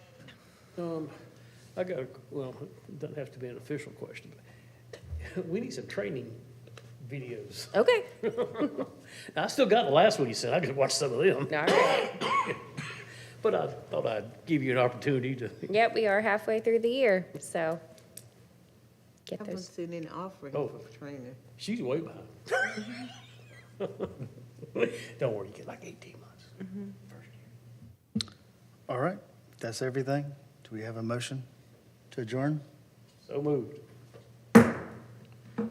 Um, I got, a well, it doesn't have to be an official question, but we need some training videos. Okay, I still got the last one you sent, I just watched some of them, all right. but I thought I'd give you an opportunity to, Yep, we are halfway through the year, so get I haven't those. seen any offering Oh. for training. she's way behind. Don't worry, you get like eighteen months. First year. All right, that's everything. Do we have a motion to adjourn? So moved.